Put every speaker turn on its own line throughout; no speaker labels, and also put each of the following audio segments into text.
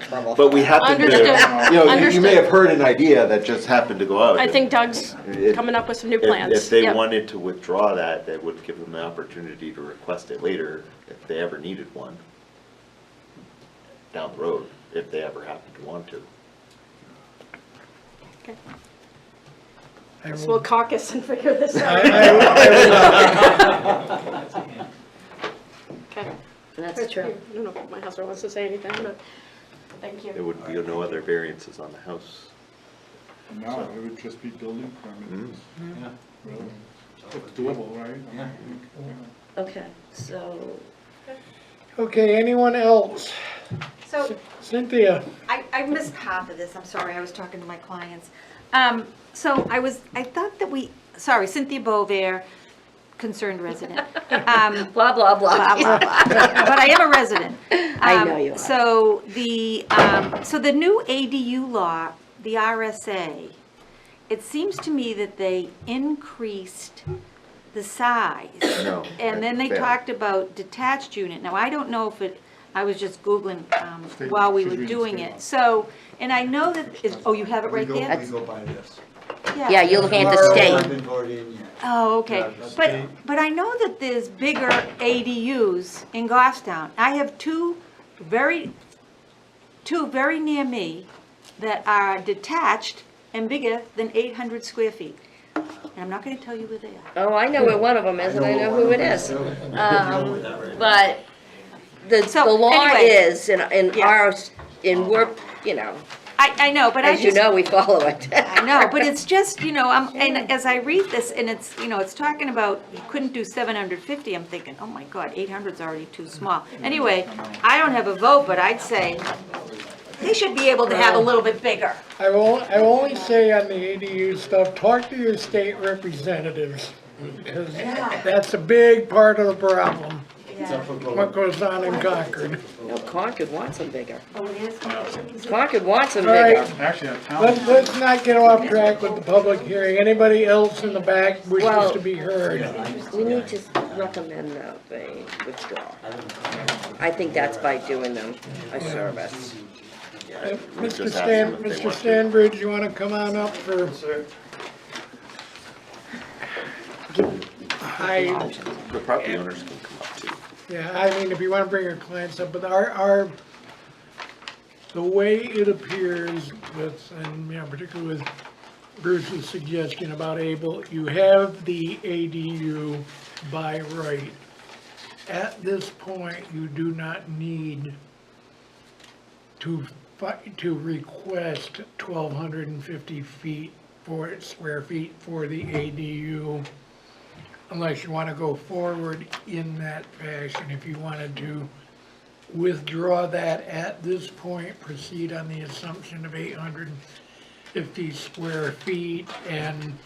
trouble.
But we happen to, you
Understood.
know, you- you may
Understood.
have heard an idea that just happened to go out.
I think Doug's
If-
coming up with some new
If-
plans.
If they
Yep.
wanted to withdraw that, that would give them the opportunity to request it later, if they ever needed one, down the road, if they ever happened to want to.
Okay.
I
So
will-
we'll caucus and figure this out. Okay.
That's true.
I don't know if my husband wants to say anything, but thank
There
you.
would be no other variances on the house.
No, it would just be building permits.
Mm.
Yeah. Really, it's doable, right? Yeah.
Okay, so,
Okay, anyone else?
So
Cynthia?
I, I missed half of this, I'm sorry, I was talking to my clients. Um, so I was, I thought that we, sorry, Cynthia Bovair, concerned resident. Um,
blah, blah,
blah,
blah.
blah, blah. But I am a resident.
I know
Um,
you are.
So the, um, so the new ADU law, the RSA, it seems to me that they increased the size.
No,
And then they
fair.
talked about detached unit. Now, I don't know if it, I was just Googling um,
State-
while we
she's
were
reading
doing
state law.
it. So, and I know that, is, oh, you have it right there?
go by this.
Yeah, you're looking at the
Tomorrow,
state.
I've been voted in yet.
Oh, okay.
Yeah, that's
But,
state.
but I know that there's bigger ADUs in Goffstown. I have two very, two very near me that are detached and bigger than 800 square feet. And I'm not going to tell you where they are.
Oh, I know where one of them is, and I know who it is. Um, But the,
So,
the law
anyway.
is, in, in
Yeah.
our, in work, you know,
I, I know, but I
as you
just,
know, we follow it.
I know, but it's just, you know, I'm, and as I read this, and it's, you know, it's talking about, you couldn't do seven hundred fifty, I'm thinking, oh my god, eight hundred's already too small. Anyway, I don't have a vote, but I'd say they should be able to have a little bit bigger.
I will, I will only say on the ADU stuff, talk to your state representatives. Because that's a big part of the problem, what goes on in Concord.
No, Concord wants them bigger.
Oh, it is?
Concord wants them
All right.
bigger.
Actually, a town.
Let's, let's not get off track with the public hearing. Anybody else in the back wishes
Well-
to be heard?
We need to recommend that they withdraw. I think that's by doing them a service.
Uh,
We just
Mr.
ask
Stan,
them if they
Mr.
want to.
Stanbridge, you wanna come on up for? I,
The property owners can come up too.
yeah, I mean, if you wanna bring your clients up, but our, our, the way it appears with, and, you know, particularly with Bruce's suggestion about Able, you have the ADU by right. At this point, you do not need to, fi- to request 1,250 feet for, square feet for the ADU, unless you want to go forward in that fashion. If you wanted to withdraw that at this point, proceed on the assumption of 850 square feet and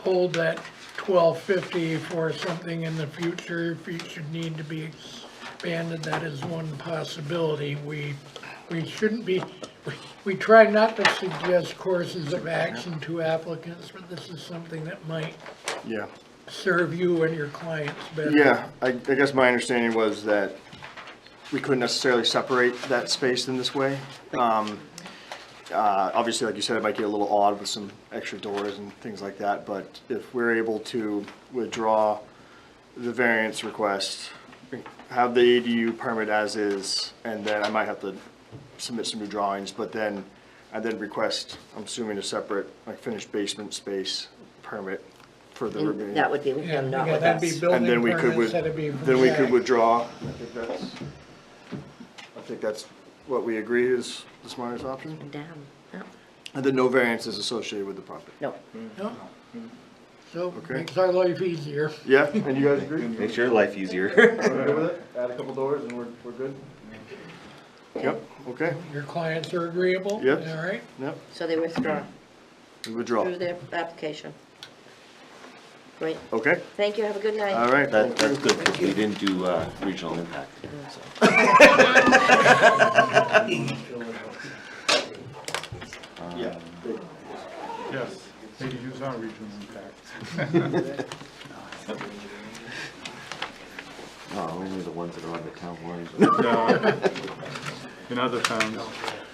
hold that 1,250 for something in the future, if it should need to be expanded, that is one possibility. We we shouldn't be, we- we try not to suggest courses of action to applicants, but this is something that might
Yeah,
serve you and your clients better.
yeah, I, I guess my understanding was that we couldn't necessarily separate that space in this way. Um, uh, obviously, like you said, it might get a little odd with some extra doors and things like that, but if we're able to withdraw the variance request, have the ADU permit as is, and then I might have to submit some new drawings, but then, I then request, I'm assuming a separate, like finished basement space permit for the remaining.
That would be with
Yeah,
them, not
yeah,
with
that'd be
us.
And
building
then we could,
permits,
with-
that'd be.
then we could withdraw. I think that's, I think that's what we agreed is the smartest option.
Down, no,
And then no variance is associated with the property.
no.
No. So,
Okay.
makes our life easier.
Yeah, and you guys agree?
Makes your life easier.
Are we good with it? Add a couple doors and we're, we're good? Yep, okay,
Your clients are agreeable?
Yes.
All right?
yep,
So they withdraw
we withdraw.
through their application. Great,
Okay,
thank you, have a good night.
all right.
That,
thank you.
that's good, because we didn't do, uh, regional impact. so.
Yeah.
Yes, maybe use our regional impact.
oh,
No, only the ones that are on the town line.
No, In uh, other towns.